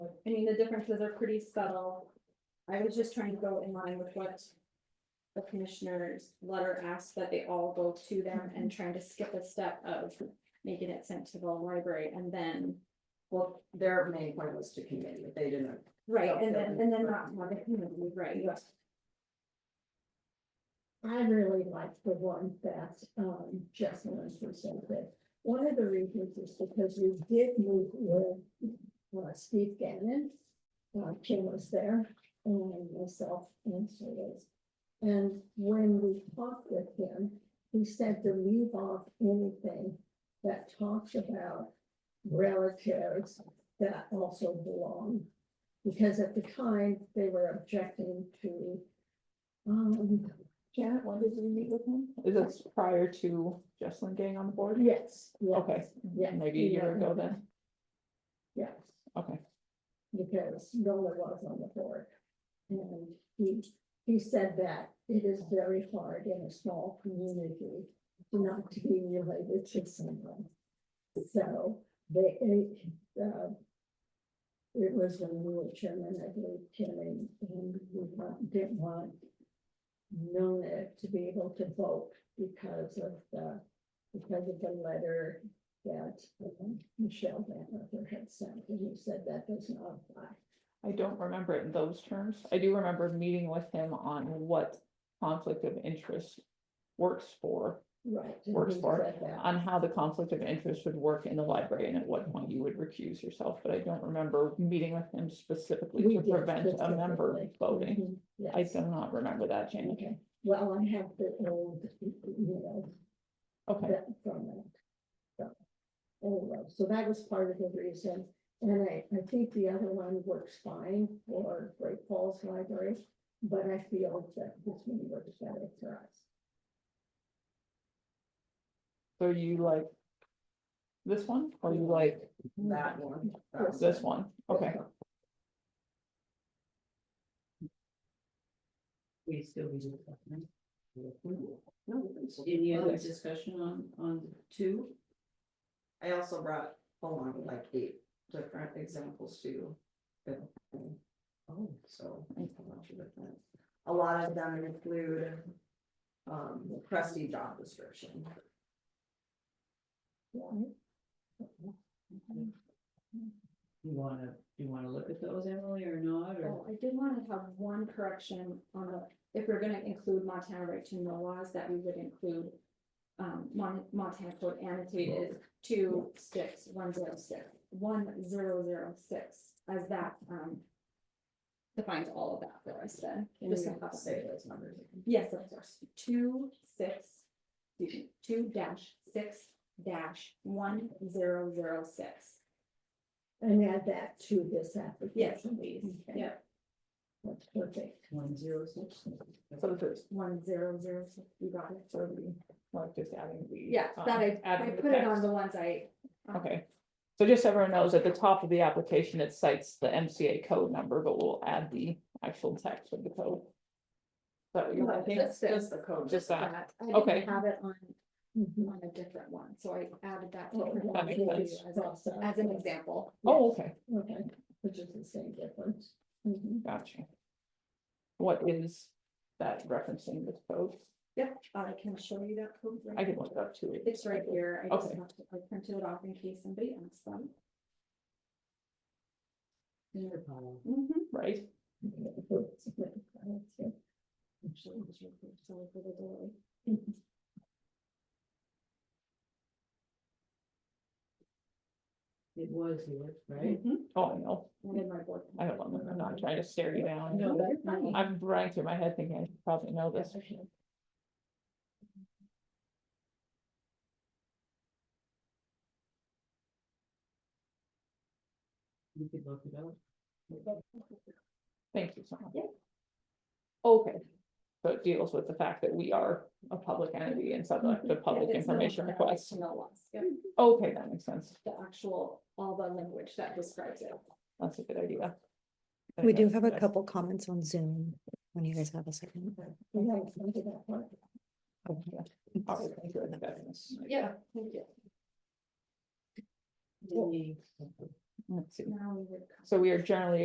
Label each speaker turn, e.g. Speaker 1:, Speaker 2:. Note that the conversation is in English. Speaker 1: I mean, the differences are pretty subtle. I was just trying to go in line with what. The commissioner's letter asked that they all go to them and trying to skip a step of making it sent to the library and then.
Speaker 2: Well, their main point was to committee, if they didn't.
Speaker 1: Right, and then, and then not have it, right, yes.
Speaker 3: I really liked the one that um Jesselyn presented. One of the reasons is because you did move with uh, Steve Gannon. Uh, Kim was there and myself and Sue's. And when we talked with him, he said to leave off anything that talks about relatives that also belong. Because at the time, they were objecting to um,
Speaker 4: Janet, when did you meet with him? Is this prior to Jesselyn getting on the board?
Speaker 3: Yes. yes,
Speaker 4: Okay,
Speaker 3: Yeah.
Speaker 4: maybe a year ago then,
Speaker 3: Yes,
Speaker 4: okay.
Speaker 3: because Nola was on the board. And he, he said that it is very hard in a small community not to be related to someone. So they, it, uh, it was when we were chairman, I believe, Tim, and and we want- didn't want Nona to be able to vote because of the, because of the letter that um, Michelle Van Ruther had sent, and he said that does not apply.
Speaker 4: I don't remember it in those terms. I do remember meeting with him on what conflict of interest works for,
Speaker 3: Right. and
Speaker 4: Works
Speaker 3: he
Speaker 4: for it.
Speaker 3: said that.
Speaker 4: on how the conflict of interest would work in the library and at what point you would recuse yourself, but I don't remember meeting with him specifically
Speaker 3: We
Speaker 4: to
Speaker 3: did
Speaker 4: prevent a member
Speaker 3: specifically.
Speaker 4: voting.
Speaker 3: Mhm,
Speaker 4: I
Speaker 3: Yes,
Speaker 4: do not remember that, Janet.
Speaker 3: okay, well, I have the old, you know,
Speaker 4: Okay,
Speaker 3: that from that. So, Anyway, so that was part of the reason, and I, I think the other one works fine for Great Falls Library, but I feel that this one works better for us.
Speaker 4: so you like this one, or you like
Speaker 2: That one. that
Speaker 4: this one? Okay,
Speaker 5: We still be discussing.
Speaker 2: No, it's-
Speaker 5: Any other
Speaker 2: Okay.
Speaker 5: discussion on, on two?
Speaker 2: I also brought along like eight different examples too. Oh. So. I don't know if you looked at it. A lot of them include. Um, the crusty job description.
Speaker 3: Right?
Speaker 5: You wanna, you wanna look at those, Emily, or not, or?
Speaker 1: Well, I did want to have one correction on the, if we're gonna include Montana right to know laws, that we would include. Um, Mon- Montana code annotated two six one zero six, one zero zero six, as that, um. Defines all of that for us then.
Speaker 2: And
Speaker 1: Just
Speaker 2: you
Speaker 1: to have-
Speaker 2: have to say those numbers.
Speaker 1: Yes, of course, two six, excuse me, two dash six dash one zero zero six.
Speaker 3: And add that to this
Speaker 1: Yes,
Speaker 3: application.
Speaker 1: please,
Speaker 3: Okay.
Speaker 1: yeah,
Speaker 3: That's perfect.
Speaker 5: One zero six.
Speaker 4: so this,
Speaker 1: one zero zero six, you got it.
Speaker 4: so we like just adding the.
Speaker 1: Yeah,
Speaker 4: um,
Speaker 1: that I, I
Speaker 4: adding the
Speaker 1: put it on
Speaker 4: text.
Speaker 1: the ones I. um,
Speaker 4: Okay, so just so everyone knows, at the top of the application, it cites the MCA code number, but we'll add the actual text of the code. Is That what you're
Speaker 1: Right,
Speaker 4: thinking?
Speaker 1: that's it.
Speaker 2: Just the code.
Speaker 4: Just that,
Speaker 1: I didn't
Speaker 4: okay.
Speaker 1: Have it on,
Speaker 2: Mm-hmm.
Speaker 3: Mhm.
Speaker 1: on a different one, so I added that
Speaker 3: Oh,
Speaker 1: to-
Speaker 4: That makes sense.
Speaker 3: that's also-
Speaker 1: as an example.
Speaker 4: oh, okay,
Speaker 3: Okay, which is the same difference.
Speaker 2: Mm-hmm.
Speaker 3: Mhm.
Speaker 4: gotcha. What is that referencing this code?
Speaker 1: Yep, I can show you that code. right
Speaker 4: I can
Speaker 1: now.
Speaker 4: look it up too.
Speaker 1: It's right here, I just
Speaker 4: Okay.
Speaker 1: have to, I printed it off in case somebody asks them.
Speaker 4: Mm-hmm.
Speaker 1: Mhm.
Speaker 4: Right,
Speaker 1: Actually, it was right there, sorry for the delay.
Speaker 5: It was yours, right?
Speaker 1: Mhm.
Speaker 4: oh, I know,
Speaker 1: I did my work.
Speaker 4: I don't, want- I'm not trying to stare you down.
Speaker 5: No, that's
Speaker 1: fine.
Speaker 4: I'm running through my head thinking I should probably know this.
Speaker 5: You could look it up.
Speaker 4: Thank you so much. Okay, so it deals with the fact that we are a public entity and
Speaker 6: Mm-hmm.
Speaker 4: subject to public
Speaker 1: It's not
Speaker 4: information
Speaker 1: on the right
Speaker 4: requests.
Speaker 1: to know laws. Yep,
Speaker 4: Okay, that makes sense.
Speaker 1: the actual, all the language that describes it.
Speaker 4: That's a good idea. I
Speaker 6: We
Speaker 4: think
Speaker 6: do
Speaker 4: that's-
Speaker 6: have a
Speaker 4: that's-
Speaker 6: couple comments on Zoom, when you guys have a second.
Speaker 3: We haven't come to that part.
Speaker 6: Okay.
Speaker 4: all right, thank you, that's-
Speaker 1: Yeah, thank you.
Speaker 5: Any
Speaker 4: Let's see.
Speaker 1: Now we would.
Speaker 4: So we are generally